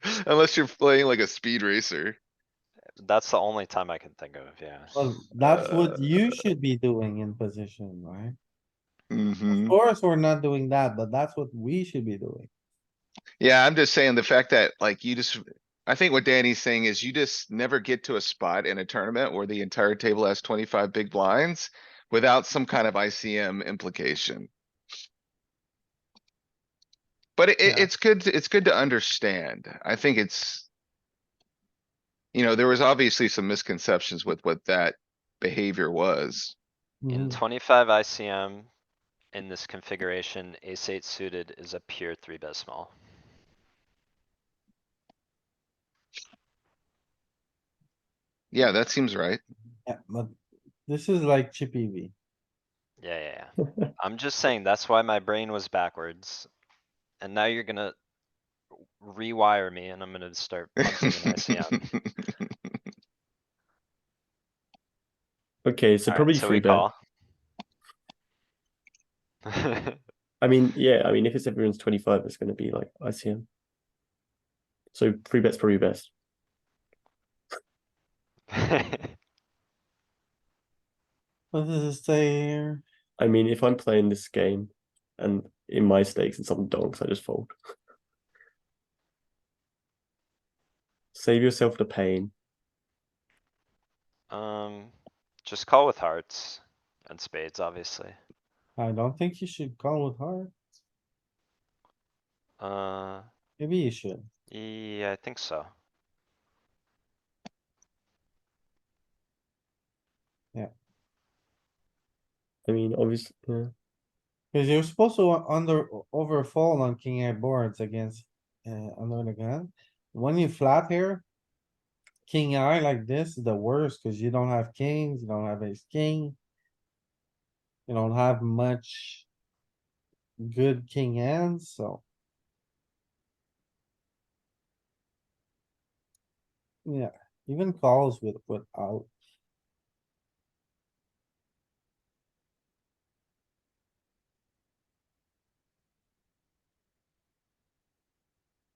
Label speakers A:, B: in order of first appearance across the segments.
A: Unless you're playing like a speed racer.
B: That's the only time I can think of, yeah.
C: Well, that's what you should be doing in position, right? Of
A: Mhm.
C: course, we're not doing that, but that's what we should be doing.
A: Yeah, I'm just saying the fact that like you just, I think what Danny's saying is you just never get to a spot in a tournament where the entire table has twenty-five big blinds without some kind of ICM implication. But it,
C: Yeah.
A: it's good, to- it's good to understand. I think it's you know, there was obviously some misconceptions with what that behavior was.
B: In
C: Mhm.
B: twenty-five ICM, in this configuration, ace eight suited is a pure three bet small.
A: Yeah, that seems right.
C: Yeah, but this is like chippy V.
B: Yeah, yeah, yeah. I'm just saying, that's why my brain was backwards. And now you're gonna rewire me and I'm gonna start punching in ICM.
D: Okay, so
B: Alright,
D: probably
B: so
D: three
B: we
D: bet.
B: call.
D: I mean, yeah, I mean, if it's everyone's 25, it's going to be like ICM. So three bet's probably best.
C: What does it say here?
D: I mean, if I'm playing this game and in my stakes and some donks, I just fold. Save yourself the pain.
B: Um, just call with hearts and spades, obviously.
C: I don't think you should call with heart.
B: Uh,
C: Maybe you should.
B: yeah, I think so.
D: I mean, obviously, yeah.
C: Cause you're supposed to under, overfold on king eight boards against, uh, under the gun. When you flat here. King eye like this is the worst, cause you don't have kings, you don't have ace king. You don't have much. Good king hands, so. Yeah, even calls with, without.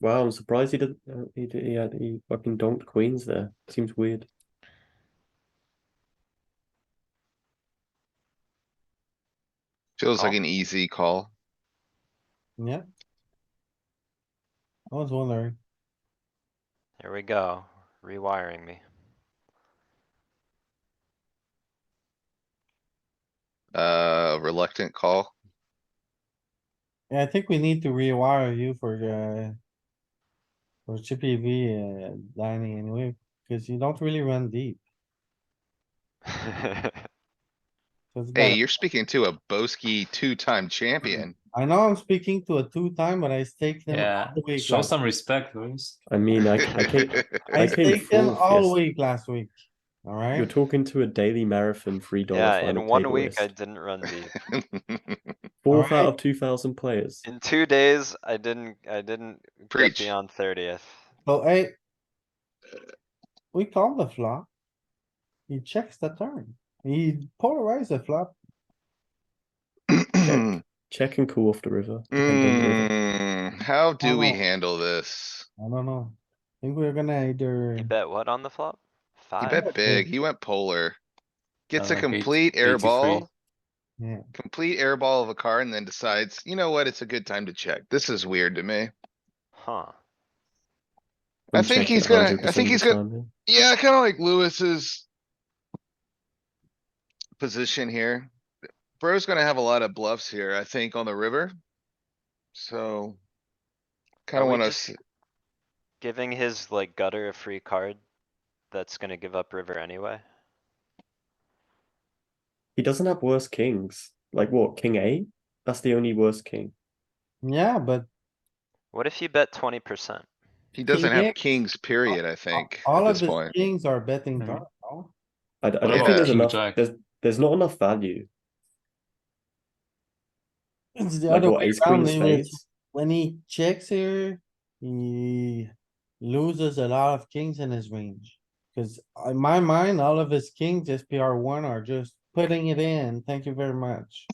D: Wow, I'm surprised he didn't. uh, He did, he had he fucking donked queens there. Seems weird.
A: Feels like
B: Oh.
A: an easy call.
C: Yeah. I was wondering,
B: Here we go, rewiring me.
A: Uh, reluctant call.
C: Yeah, I think we need to rewire you for, uh. For chippy V, uh, dining anyway, cause you don't really run deep. So it's
A: Hey,
C: better.
A: you're speaking to a Boski two-time champion.
C: I know I'm speaking to a two-time, but I stake them
E: Yeah,
C: all the week.
E: show
C: last-
E: some respect, Louis.
D: I mean, I, I came,
C: I
D: I came
C: staked them
D: fourth
C: all
D: yes-
C: week last week,
D: You're
C: alright?
D: talking to a daily marathon three dollar
B: Yeah,
D: final
B: in one
D: table
B: week I
D: list.
B: didn't run deep.
D: Fourth
C: Alright.
D: out of two thousand players.
B: In two days, I didn't, I didn't get
A: Preach.
B: beyond thirtieth.
C: So, hey. We call the flop. He checks the turn. He polarized the flop.
D: Check and call off the river. depending on the river.
A: Mm, How do we
C: Oh.
A: handle this?
C: I don't know. I think we're gonna either.
B: You bet what on the flop?
A: He
B: Five?
A: bet big, he went polar. Gets a
E: Uh, eight-
A: complete air
E: 83.
A: ball.
C: Yeah.
A: Complete air ball of a car and then decides, you know what, it's a good time to check. This is weird to me.
B: Huh.
A: I
D: I'm
A: think
D: checking
A: he's gonna- I
D: 100%
A: think
D: of
A: he's
D: the
A: gonna-
D: time, yeah.
A: Yeah, kinda like Lewis's. Position here. Bro's gonna have a lot of bluffs here, I think, on the river. So.
B: Are
A: Kinda
B: we
A: wanna,
B: just
A: s-
B: Giving his like gutter a free card that's gonna give up river anyway.
D: He doesn't have worse kings. Like what? King eight? That's the only worst king.
C: Yeah, but
B: What if you bet twenty percent?
A: he doesn't have
C: X.
A: kings, period, I think, at
C: all of
A: this
C: his
A: point.
C: kings are betting
E: Hmm.
C: turn, no?
D: I, I don't
A: Yeah.
D: think there's
E: King
D: enough.
E: jack.
D: There's there's not enough value.
C: It's the
D: Like
C: other
D: what?
C: way
D: Ace queen
C: around, and
D: spades.
C: it's- when he checks here, he loses a lot of kings in his range. Cause uh, in my mind, all of his kings, SPR one are just putting it in, thank you very much.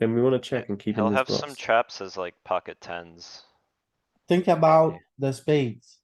D: Then we want to check and keep
B: He'll
D: him in
B: have
D: his
B: some
D: bluffs.
B: traps as like pocket tens.
C: Think about the spades.